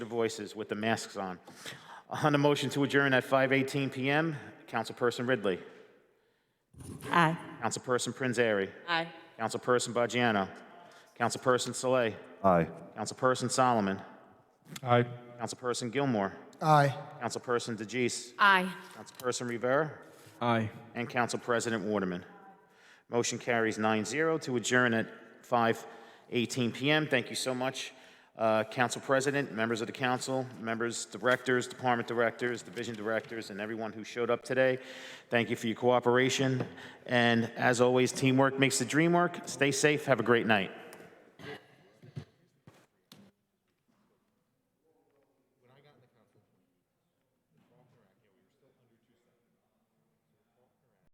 voices with the masks on. On the motion to adjourn at 5:18 PM, Councilperson Ridley. Aye. Councilperson Prinzary. Aye. Councilperson Bajano. Councilperson Saleh. Aye. Councilperson Solomon. Aye. Councilperson Gilmore. Aye. Councilperson DeJeece. Aye. Councilperson Rivera. Aye. And Council President Waterman. Motion carries 9-0 to adjourn at 5:18 PM. Thank you so much, uh, Council President, members of the council, members, directors, department directors, division directors, and everyone who showed up today. Thank you for your cooperation, and as always, teamwork makes the dream work. Stay safe, have a great night.